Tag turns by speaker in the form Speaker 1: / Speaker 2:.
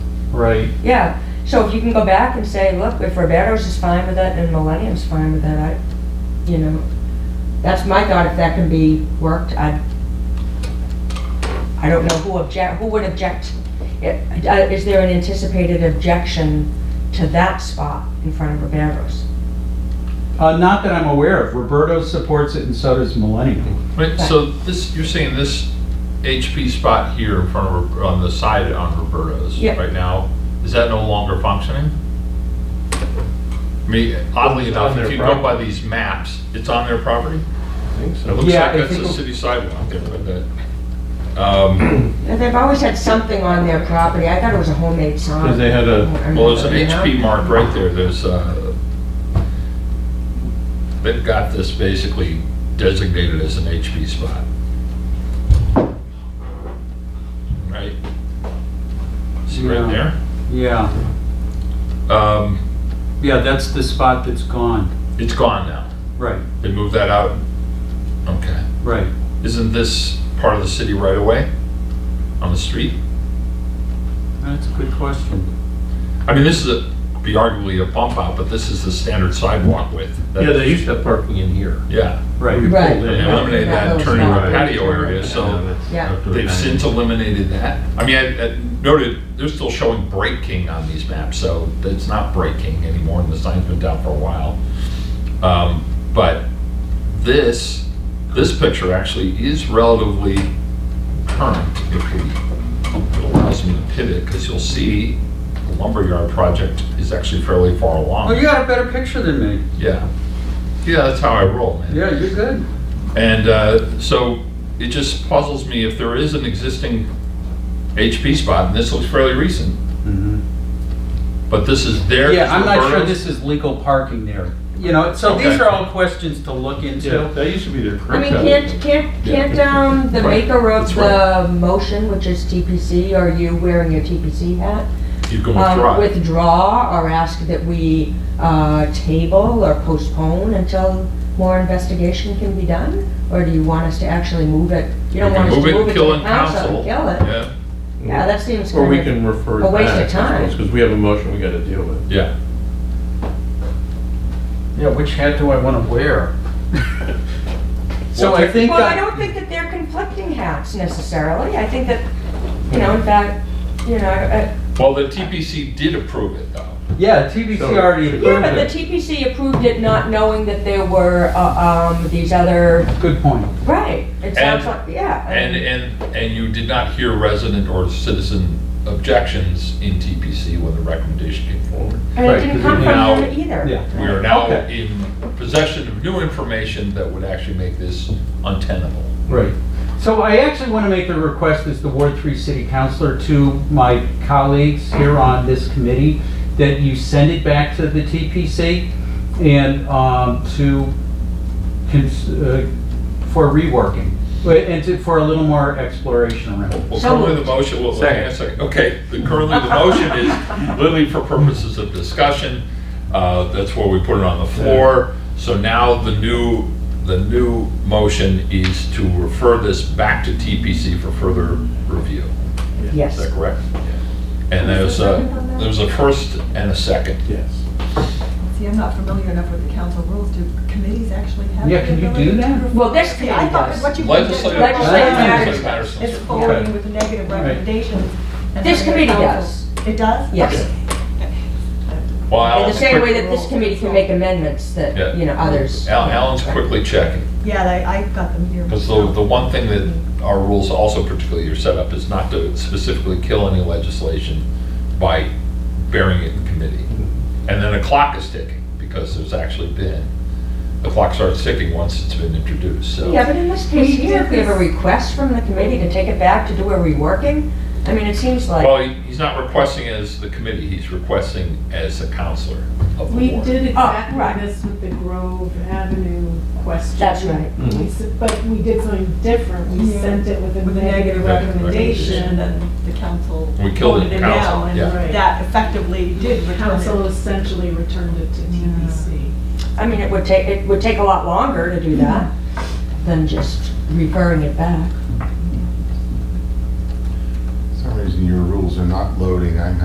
Speaker 1: Right.
Speaker 2: Yeah, so if you can go back and say, look, if Roberto's is fine with it and Millennium's fine with it, I, you know, that's my thought, if that can be worked, I, I don't know who object, who would object. I- I- Is there an anticipated objection to that spot in front of Roberto's?
Speaker 1: Uh, not that I'm aware of. Roberto supports it and so does Millennium.
Speaker 3: Right, so this, you're saying this HP spot here in front of, Ro- on the side on Roberto's
Speaker 2: Yeah.
Speaker 3: right now, is that no longer functioning? I mean, oddly
Speaker 4: It's on
Speaker 3: enough,
Speaker 4: their
Speaker 3: if you go by
Speaker 4: property.
Speaker 3: these maps, it's on their property?
Speaker 4: I think
Speaker 3: It
Speaker 4: so.
Speaker 3: looks
Speaker 1: Yeah,
Speaker 3: like
Speaker 1: I
Speaker 3: that's
Speaker 1: think
Speaker 3: a
Speaker 1: it-
Speaker 3: city sidewalk there, but that, um,
Speaker 2: And They've always had something on their property, I thought it was a homemade sign.
Speaker 4: Because they had a-
Speaker 3: well, there's an HP mark right there, there's, uh, they've got this basically designated as an HP spot. Right? See right
Speaker 1: Yeah.
Speaker 3: there?
Speaker 1: Yeah,
Speaker 3: Um,
Speaker 1: yeah, that's the spot that's gone.
Speaker 3: it's gone now.
Speaker 1: Right,
Speaker 3: They moved that out. Okay.
Speaker 1: right.
Speaker 3: Isn't this part of the city right away? On the street?
Speaker 1: That's a good question.
Speaker 3: I mean, this is a, be arguably a bump out, but this is the standard sidewalk width.
Speaker 4: Yeah, they used to have parking in here.
Speaker 3: Yeah,
Speaker 1: Right.
Speaker 2: Right.
Speaker 3: and they eliminated that and turned it into a patio area, so
Speaker 2: Yeah.
Speaker 3: they've since eliminated that. I mean, I I noted, they're still showing breaking on these maps, so it's not breaking anymore, and the sign's been down for a while. Um, But this, this picture actually is relatively current, if we- it allows me to pivot, because you'll see the lumberyard project is actually fairly far along.
Speaker 1: Oh, you got a better picture than me.
Speaker 3: Yeah. Yeah, that's how I roll, man.
Speaker 1: Yeah, you're good.
Speaker 3: And uh, so it just puzzles me if there is an existing HP spot, and this looks fairly recent, but this is there.
Speaker 1: Yeah, I'm not sure this is legal parking there. You know, so these
Speaker 3: Okay.
Speaker 1: are all questions to look
Speaker 4: Yeah,
Speaker 1: into.
Speaker 4: that used to be their
Speaker 2: I
Speaker 4: curb
Speaker 2: mean,
Speaker 4: cut.
Speaker 2: can't, can't, can't, um, the
Speaker 3: Right.
Speaker 2: maker of
Speaker 3: That's right.
Speaker 2: the motion, which is TPC, are you wearing your TPC hat?
Speaker 3: You
Speaker 2: um,
Speaker 3: can withdraw. it.
Speaker 2: Withdraw or ask that we, uh, table or postpone until more investigation can be done? Or do you want us to actually move it? You
Speaker 3: You
Speaker 2: don't
Speaker 3: can
Speaker 2: want us to
Speaker 3: move
Speaker 2: move it
Speaker 3: kill
Speaker 2: to
Speaker 3: and
Speaker 2: council and kill it?
Speaker 3: Yeah,
Speaker 2: Yeah, that seems
Speaker 4: Or we
Speaker 2: kind of,
Speaker 4: can refer it
Speaker 2: a
Speaker 4: back.
Speaker 2: waste of time.
Speaker 4: Because we have a motion we gotta deal with.
Speaker 3: yeah.
Speaker 5: Yeah, which hat do I want to wear?
Speaker 1: So I think,
Speaker 2: well, I
Speaker 1: uh,
Speaker 2: don't think that they're conflicting hats necessarily. I think that, you know, in fact, you know, I- I-
Speaker 3: Well, the TPC did approve it, though.
Speaker 1: yeah, TBC
Speaker 4: So-
Speaker 1: already
Speaker 2: yeah, but
Speaker 1: approved
Speaker 2: the
Speaker 1: it.
Speaker 2: TPC approved it not knowing that there were, uh, um, these other,
Speaker 1: Good point.
Speaker 2: right. It sounds
Speaker 3: And-
Speaker 2: like, yeah. I
Speaker 3: And,
Speaker 2: mean-
Speaker 3: and, and you did not hear resident or citizen objections in TPC when the recommendation came forward.
Speaker 2: And it
Speaker 1: Right,
Speaker 2: didn't
Speaker 1: 'cause
Speaker 2: come
Speaker 3: we now-
Speaker 2: from him either.
Speaker 1: Yeah.
Speaker 3: We are now
Speaker 1: Okay.
Speaker 3: in possession of new information that would actually make this untenable.
Speaker 1: Right. So I actually want to make the request as the Ward 3 City Councilor to my colleagues here on this committee, that you send it back to the TPC and um, to, cons- uh, for reworking, Wait, and to- for a little more exploration around it.
Speaker 3: Well,
Speaker 2: So
Speaker 3: currently the
Speaker 2: moved.
Speaker 3: motion, well, hang on a
Speaker 1: Second.
Speaker 3: second, okay, the- currently the motion is literally for purposes of discussion, uh, that's where we put it on the floor. So now the new, the new motion is to refer this back to TPC for further review, is
Speaker 2: Yes.
Speaker 3: that correct? And there's a, there's a first and a second.
Speaker 4: Yes.
Speaker 6: See, I'm
Speaker 3: um,
Speaker 6: not familiar enough with the council rules. Do committees actually have?
Speaker 1: Yeah,
Speaker 6: the
Speaker 1: can you do
Speaker 6: ability to
Speaker 1: that?
Speaker 6: approve?
Speaker 2: Well, this
Speaker 6: See, I thought
Speaker 2: committee
Speaker 6: what you.
Speaker 3: Legislative.
Speaker 2: Legislative matters.
Speaker 3: Legislative matters.
Speaker 6: It's forwarding with negative recommendations. and
Speaker 2: This
Speaker 6: then the
Speaker 2: committee does.
Speaker 6: council- It does?
Speaker 2: Yes.
Speaker 3: Well,
Speaker 2: In the
Speaker 3: Alan's
Speaker 2: same way
Speaker 3: quick-
Speaker 2: that this committee can make amendments
Speaker 3: Yeah.
Speaker 2: that, you know, others.
Speaker 3: Al- Alan's quickly checking.
Speaker 6: Yeah, I, I got them here.
Speaker 3: Because the, the one thing that our rules also particularly are set up is not to specifically kill any legislation by burying it in committee. And then a clock is ticking, because there's actually been, the clock starts ticking once it's been introduced, so.
Speaker 2: Yeah, but in this case
Speaker 6: We
Speaker 2: here,
Speaker 6: did
Speaker 2: if we have a
Speaker 6: this-
Speaker 2: request from the committee to take it back to do a reworking, I mean, it seems like,
Speaker 3: Well, he- he's not requesting as the committee, he's requesting as a counselor of the
Speaker 7: We
Speaker 3: board.
Speaker 7: did
Speaker 2: right.
Speaker 7: exactly this with the Grove Avenue question.
Speaker 2: That's right.
Speaker 7: We s- But we did something different. We
Speaker 6: Yeah.
Speaker 7: sent it with a
Speaker 6: With a negative
Speaker 7: negative
Speaker 6: recommendation
Speaker 7: recommendation.
Speaker 6: and the council,
Speaker 3: We killed it
Speaker 7: voted
Speaker 3: in
Speaker 7: it down,
Speaker 3: council, yeah.
Speaker 7: right.
Speaker 6: that effectively did
Speaker 7: The
Speaker 6: return
Speaker 7: council
Speaker 6: it.
Speaker 7: essentially returned it to TBC.
Speaker 2: I mean, it would take, it would take a lot longer to do that than just referring it back.
Speaker 8: For some reason, your rules are not loading. I'm